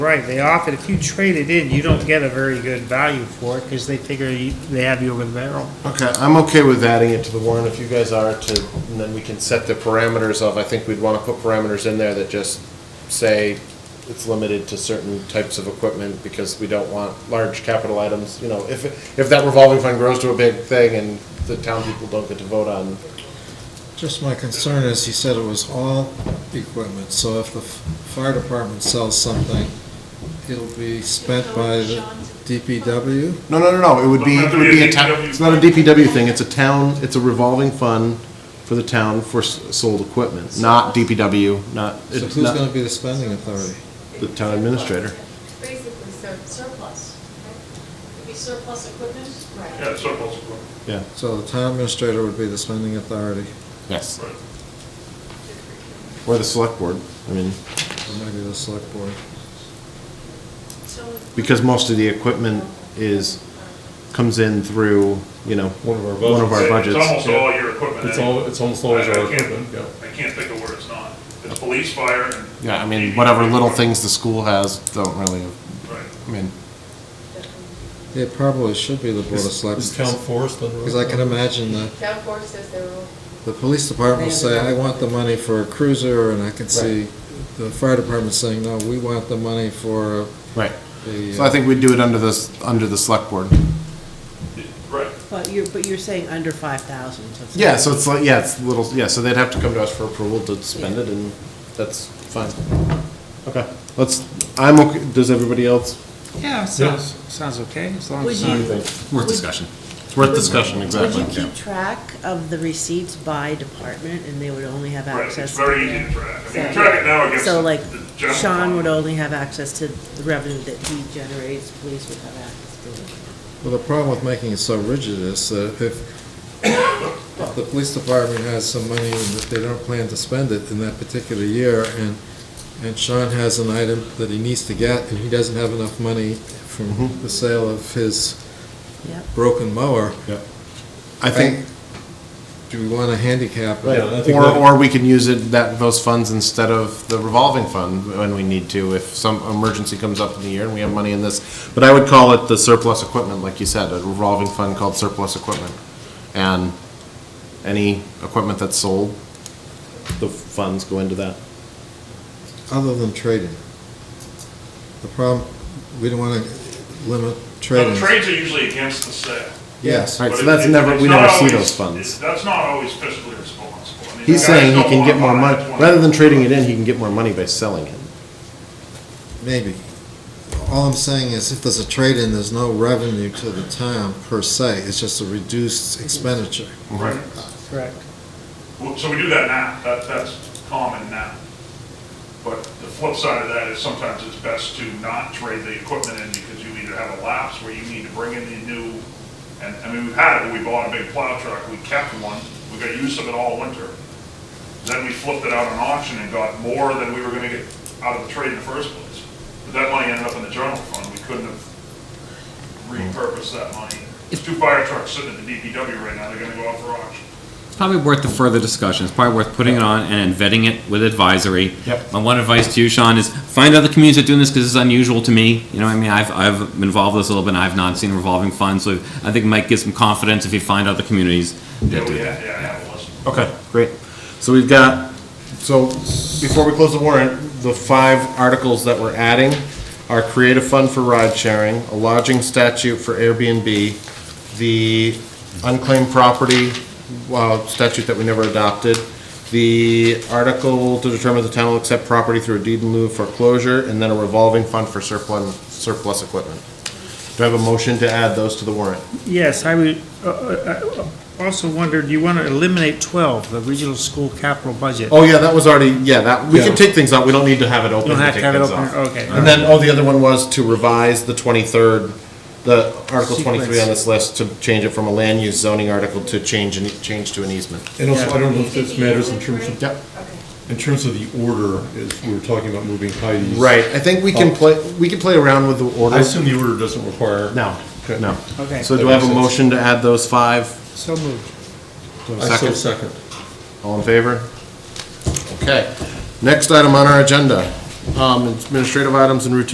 Right, they offered, if you trade it in, you don't get a very good value for it, because they figure you- they have you over the barrel. Okay, I'm okay with adding it to the warrant if you guys are to, and then we can set the parameters of, I think we'd want to put parameters in there that just say it's limited to certain types of equipment because we don't want large capital items, you know, if, if that revolving fund grows to a big thing and the town people don't get to vote on. Just my concern is, he said it was all equipment, so if the f- fire department sells something, it'll be spent by the DPW? No, no, no, no, it would be, it would be a town, DPW. it's not a DPW thing, it's a town, it's a revolving fund for the town for s- sold equipment, not DPW, not, So it's who's not gonna be the spending authority? the town administrator. Basically, sur- surplus, right? It'd be surplus equipment? Yeah, surplus equipment, Yeah, So the town administrator would be the spending authority, yes. right. Or the select board, I mean. or maybe the select board. So- because most of the equipment is, comes in through, you know, one of our budgets. It's almost all your equipment. It's anyway. all, it's almost always I- I our can't- equipment, yeah. I can't think of where it's not. It's police, fire, and. Yeah, I mean, DPW. whatever little things the school has don't really, Right. I mean, It probably should be the board of selectmen. Is town forest under? Because I can imagine the, Town force says they're all. the police department will say, I want the money for a cruiser, and I can see the fire department saying, no, we want the money for right. the. So I think we do it under this, under the select board. Right. But you're, but you're saying under five thousand. Yeah, so it's like, yeah, it's little, yeah, so they'd have to come to us for approval to spend it, and that's fine. Okay, let's, I'm okay, does everybody else? Yeah, sounds, sounds okay, as long Would as. you- it's not- Worth discussion. It's worth discussion, Would exactly. you keep track of the receipts by department and they would only have Right, it's access? to very the- easy to track. I mean, So- you track it now against So like the general Sean fund. would only have access to the revenue that he generates, police would have access to it. Well, the problem with making it so rigid is that if, if the police department has some money and that they don't plan to spend it in that particular year, and, and Sean has an item that he needs to get, and he doesn't have enough money from the sale of his Yep. broken mower, I think, do we want to handicap Right. it? I think Or, that- or we can use it, that, those funds instead of the revolving fund when we need to, if some emergency comes up in the year and we have money in this. But I would call it the surplus equipment, like you said, a revolving fund called surplus equipment. And any equipment that's sold, the funds go into that. Other than trading. The problem, we don't want to limit trading. Now, Trades are usually against the sale. Yes. Right, but so it- that's it- never- it's we not never see always- those funds. it- That's not always fiscally responsible. I He's mean, the guys saying he don't can wanna get more buy money, 20. rather than trading it in, he can get more money by selling it. Maybe. All I'm saying is if there's a trade-in, there's no revenue to the town per se, it's just a reduced expenditure. Right. Correct. Well, So we do that now, that, that's common now. But the flip side of that is sometimes it's best to not trade the equipment in because you either have a lapse where you need to bring in the new, and, I mean, we've had it, where we bought a big plow truck, we kept one, we got use of it all winter. Then we flipped it out on auction and got more than we were gonna get out of the trade in the first place. But that money ended up in the general fund, we couldn't have repurposed that money. There's two fire trucks sitting at the DPW right now, they're gonna go out for auction. It's Probably worth the further discussion. It's probably worth putting it on and then vetting it with advisory. Yep. My one advice to you, Sean, is find other communities that are doing this because it's unusual to me. You know, what I mean, I've, I've been involved with this a little bit and I've not seen a revolving fund, so I think it might give some confidence if you find other communities Yeah, that do we that. have, yeah, I have a list. Okay, great. So we've got, so before we close the warrant, the five articles that we're adding are creative fund for ride sharing, a lodging statute for Airbnb, the unclaimed property uh, statute that we never adopted, the article to determine the town will accept property through a deed in lieu of foreclosure, and then a revolving fund for surplus, surplus equipment. Do I have a motion to add those to the warrant? Yes, I would, uh, uh, uh, also wondered, you want to eliminate twelve, the regional school capital budget? Oh, yeah, that was already, yeah, that, we Yeah. can take things out, we don't need to have it open. Don't to have to take have it things open, off. okay. And then, oh, the other one was to revise the twenty-third, the Article twenty-three on this list to change it from a land use zoning article to change, an- change to an easement. And also, I don't know if this matters in terms of, Yep. Okay. in terms of the order, is we were talking about moving Heidi's. Right, I think we can play, we can play around with the Oh. I order. assume the order doesn't require. No, Okay. no. Okay. So do I have a motion to add those five? So moved. Do I have a I so second? second. All in favor? Okay. Next item on our agenda, um, administrative items and routine